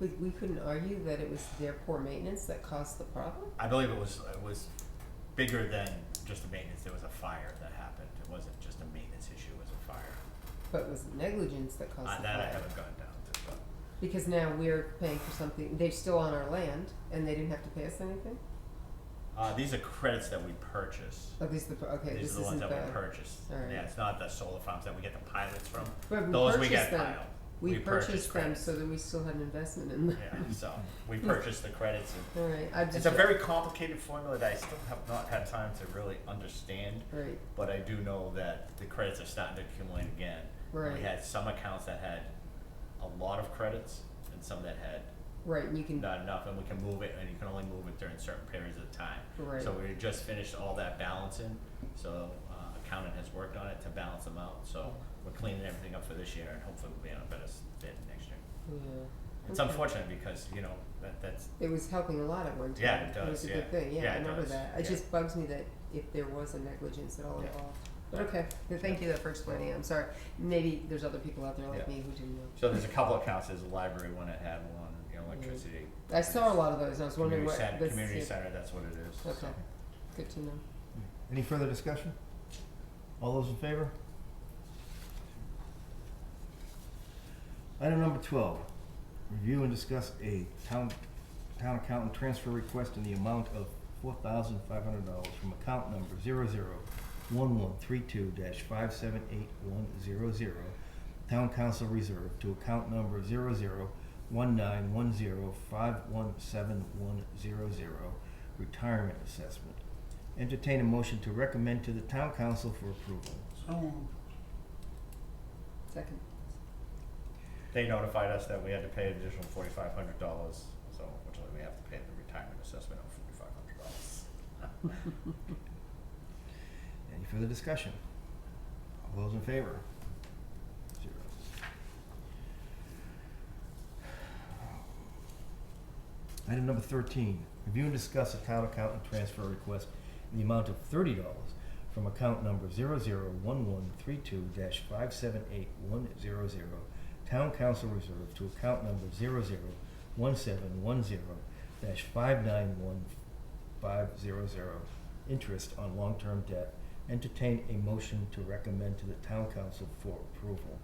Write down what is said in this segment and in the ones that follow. We, we couldn't argue that it was their poor maintenance that caused the problem? I believe it was, it was bigger than just the maintenance, there was a fire that happened, it wasn't just a maintenance issue, it was a fire. But it was negligence that caused Uh, the that I fire. haven't gone down to, but. Because now we're paying for something, they're still on our land and they didn't have to pay us anything? Uh, these are credits that we purchase. Oh, these are the, okay, this These are isn't the the. ones that we purchased. Alright. Yeah, it's not the solar farms that we get the pilots from. But we Those we purchased get them. piled. We purchase purchased them so that we still had an investment in them. credits. Yeah, so we purchase the credits. and- Alright, I just. It's a very complicated formula that I still have not had time to really understand, Right, but I do know that the credits are starting to accumulate again. Right. We had some accounts that had a lot of credits and some that had right, and you can, not enough, and we can move it, and you can only move it during certain periods of time. Right. So we just finished all that balancing, so uh, accountant has worked on it to balance them out, so we're cleaning everything up for this year, and hopefully we'll be on a better s- bid next year. yeah. It's Okay. unfortunate because, you know, that, that's, It was helping a lot at one time. Yeah, it was does, a yeah. good thing, yeah, Yeah, I it remember does, that. It yeah. just bugs me that if there was a negligence at all Yeah. involved. But okay, th- thank you though for explaining it, I'm sorry. Maybe there's other people out there like Yeah. me who didn't know. so there's a couple accounts, there's a library one that had one, you know, electricity. Mm. I saw a lot of those, and I was wondering Community what. center, this- community center, that's what it is. Okay, good to know. Any further discussion? All those in favor? Item number twelve, review and discuss a town, town accountant transfer request in the amount of four thousand five hundred dollars from account number zero zero one one three two dash five seven eight one zero zero, town council reserve to account number zero zero one nine one zero five one seven one zero zero, retirement assessment. Entertain a motion to recommend to the town council for approval. Second, They notified us that we had to pay an additional forty-five hundred dollars, so unfortunately we have to pay the retirement assessment of forty-five hundred dollars. Any further discussion? All those in favor? Zero. Item number thirteen, review and discuss a town accountant transfer request in the amount of thirty dollars from account number zero zero one one three two dash five seven eight one zero zero, town council reserve to account number zero zero one seven one zero dash five nine one five zero zero, interest on long-term debt. Entertain a motion to recommend to the town council for approval.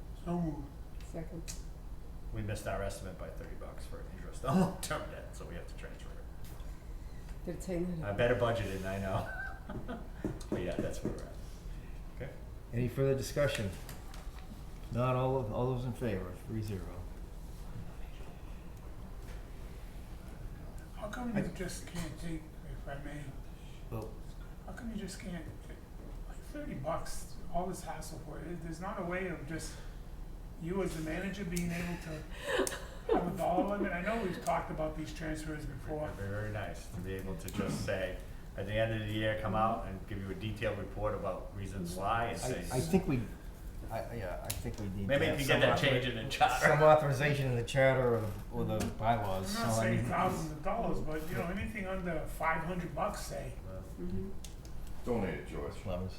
second, We missed our estimate by thirty bucks for interest on long-term debt, so we have to transfer it. did it take that? I better budget it, I know. But yeah, that's where we're at. Okay. Any further discussion? Not all of, all those in favor, three zero. How come I- you just can't take, if I may, Well, how come you just can't, like thirty bucks, all this hassle for it, there's not a way of just, you as the manager being able to have a dollar limit, I know we've talked about these transfers before, Very, very nice to be able to just say, at the end of the year, come out and give you a detailed report about reasons why and I, say. I think we, I, yeah, I think we need to Maybe you have can some get that author- change in the charter. Some authorization in the charter or the, or the bylaws, I'm so not I saying mean- thousands of dollars, but you know, anything under five hundred bucks, say, Mm-hmm. Donate it, George. Levels.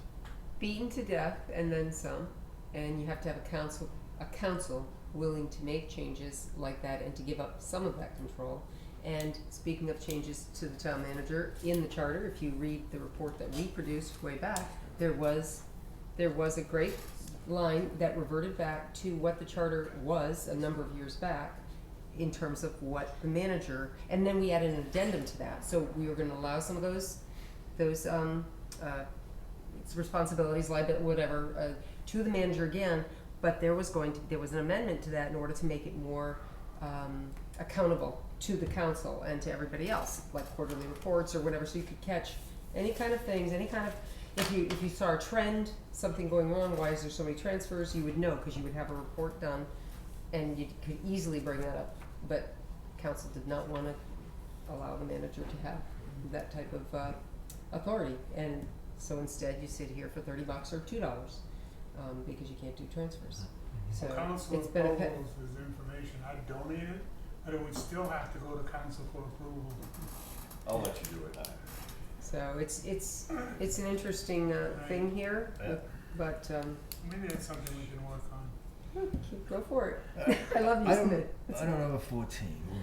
Beaten to death and then some, and you have to have a council, a council willing to make changes like that and to give up some of that control. And speaking of changes to the town manager in the charter, if you read the report that we produced way back, there was, there was a great line that reverted back to what the charter was a number of years back in terms of what the manager, and then we added an addendum to that, so we were gonna allow some of those, those, um, uh, its responsibilities, liability, whatever, uh, to the manager again, but there was going to, there was an amendment to that in order to make it more, um, accountable to the council and to everybody else, like quarterly reports or whatever, so you could catch any kind of things, any kind of, if you, if you saw a trend, something going wrong, why is there so many transfers, you would know, cause you would have a report done, and you could easily bring that up, but council did not wanna allow the manager to have that type of, uh, authority, and so instead you sit here for thirty bucks or two dollars, um, because you can't do transfers. So council it's been a pet, approvals is information, I donate it, but it would still have to go to council for approval. I'll let you do it. so it's, it's, it's an interesting, uh, thing here, Yeah. but, um, Maybe that's something we can work on. keep, go for it. I love you, Uh, I don't, Smith. I don't know the fourteen.